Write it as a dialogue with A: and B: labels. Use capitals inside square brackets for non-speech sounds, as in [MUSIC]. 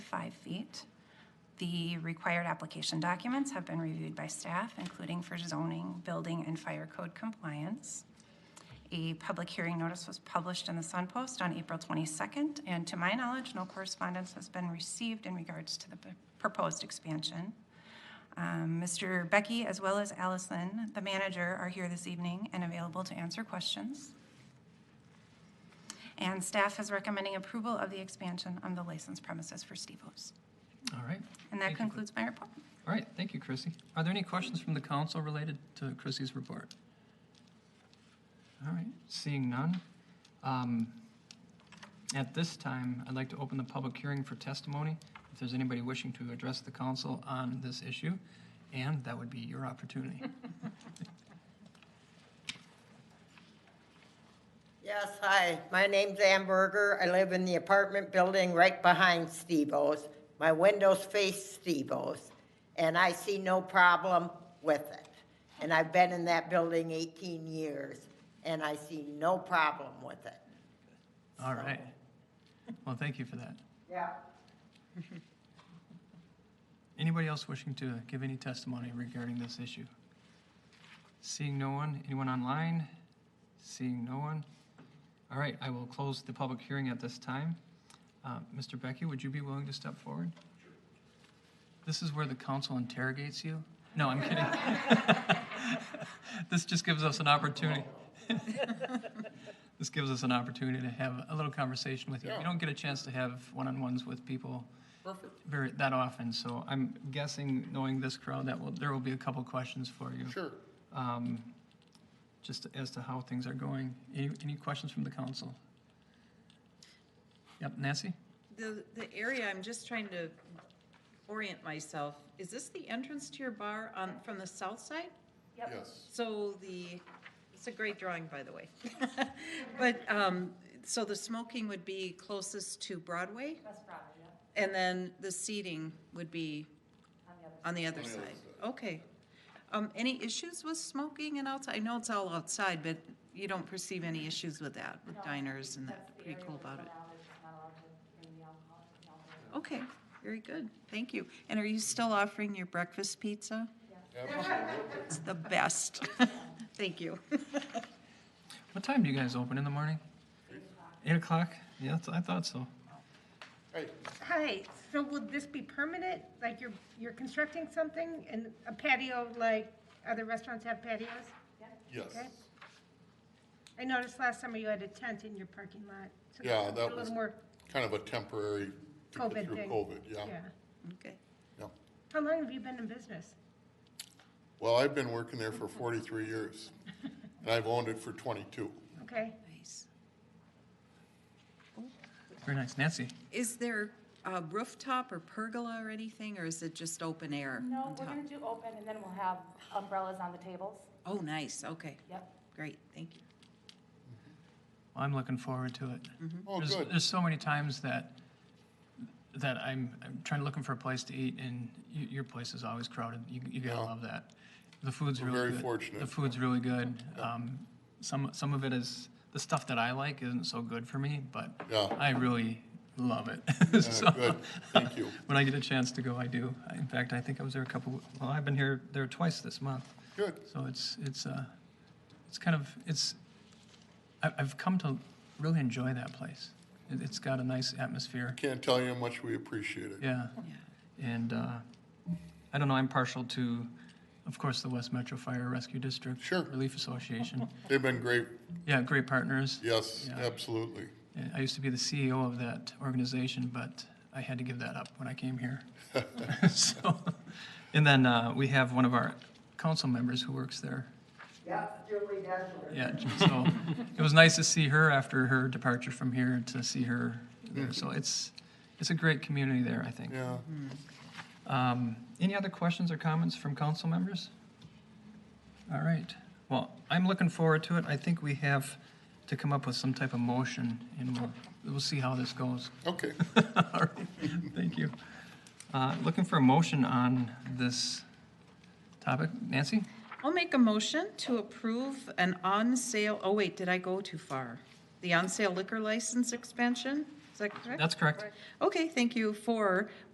A: five feet. The required application documents have been reviewed by staff, including for zoning, building, and fire code compliance. A public hearing notice was published in the Sun Post on April 22nd, and to my knowledge, no correspondence has been received in regards to the p- proposed expansion. Um, Mr. Becky, as well as Allison, the manager, are here this evening and available to answer questions. And staff is recommending approval of the expansion on the licensed premises for Stevo's.
B: All right.
A: And that
B: Thank you.
A: concludes my report.
B: All right, thank you, Chrissy. Are there any questions from the council related to Chrissy's report? All right, seeing none. um, At this time, I'd like to open the public hearing for testimony. If there's anybody wishing to address the council on this issue, and that would be your opportunity.
C: Yes, hi, my name's Ann Berger. I live in the apartment building right behind Steve-O's. My windows face Steve-O's, and I see no problem with it. And I've been in that building 18 years, and I see no problem with it.
B: All right. Well, thank you for that.
C: Yeah.
B: Anybody else wishing to give any testimony regarding this issue? Seeing no one, anyone online? Seeing no one? All right, I will close the public hearing at this time. Uh, Mr. Becky, would you be willing to step forward? This is where the council interrogates you? No, I'm kidding. [LAUGHS] This just gives us an opportunity. [LAUGHS] This gives us an opportunity to have a little conversation with you. You don't get a chance to have one-on-ones with people
D: Perfect,
B: very that often, so I'm guessing, knowing this crowd, that will, there will be a couple questions for you.
D: sure.
B: Um, just as to how things are going. Any, any questions from the council? Yep, Nancy?
E: The, the area, I'm just trying to orient myself, is this the entrance to your bar on, from the south side?
D: Yes.
E: So the, it's a great drawing, by the way. [LAUGHS] But, um, so the smoking would be closest to Broadway? That's Broadway, yeah. And then the seating would be on the other
D: On the other
E: side? Okay. Um, any issues with smoking and outside? I know it's all outside, but you don't perceive any issues with that, with diners and that, pretty cool about it? Okay, very good, thank you. And are you still offering your breakfast pizza?
D: Absolutely.
E: It's the best. [LAUGHS] Thank you.
B: What time do you guys open in the morning? Eight o'clock? Yeah, that's- I thought so.
D: Hey,
F: Hi, so would this be permanent? Like you're, you're constructing something and a patio like other restaurants have patios?
D: yes.
F: Okay. I noticed last summer you had a tent in your parking lot. so
D: Yeah,
F: it's
D: that
F: A
D: was
F: little more
D: Kind of a temporary. to get
F: COVID
D: Through
F: thing.
D: COVID, yeah,
E: [LAUGHS] Okay.
D: yeah.
F: How long have you been in business?
D: Well, I've been working there for forty-three years,
F: [LAUGHS]
D: and I've owned it for twenty-two.
F: Okay,
E: Nice.
B: Very nice. Nancy?
E: Is there a rooftop or pergola or anything, or is it just open air?
G: No,
E: on
G: we're
E: top?
G: gonna do open, and then we'll have umbrellas on the tables.
E: Oh, nice, okay,
G: Yep.
E: great, thank you.
B: I'm looking forward to it.
D: Oh,
B: There's,
D: good.
B: there's so many times that, that I'm, I'm trying to looking for a place to eat and y your place is always crowded. You, you gotta
D: Yeah.
B: love that. The food's
D: We're
B: really good.
D: very fortunate.
B: The food's really good. Um, some, some of it is, the stuff that I like isn't so good for me, but
D: Yeah.
B: I really love it. [LAUGHS] So,
D: good. Thank you.
B: When I get a chance to go, I do. I- In fact, I think I was there a couple, well, I've been here, there twice this month.
D: Good,
B: So it's, it's, uh, it's kind of, it's, I, I've come to really enjoy that place. It, it's got a nice atmosphere,
D: can't tell you how much we appreciate it.
B: yeah. And, uh, I don't know, I'm partial to, of course, the West Metro Fire Rescue District.
D: Sure.
B: Relief Association.
D: They've been great,
B: Yeah, great partners.
D: yes,
B: Yeah.
D: absolutely.
B: Yeah, I used to be the CEO of that organization, but I had to give that up when I came here. [LAUGHS] So, and then, uh, we have one of our council members who works there,
C: Yeah, Julie Desler.
B: Yeah, so it was nice to see her after her departure from here, to see her there. So it's, it's a great community there, I think.
D: Yeah,
B: Um, Any other questions or comments from council members? All right. Well, I'm looking forward to it. I think we have to come up with some type of motion, and we'll, we'll see how this goes. [LAUGHS]
D: okay.
B: All right, thank you. Uh, Looking for a motion on this topic. Nancy?
E: I'll make a motion to approve an on-sale, oh wait, did I go too far? The on-sale liquor license expansion? Is that correct?
B: That's correct.
E: Okay, thank you for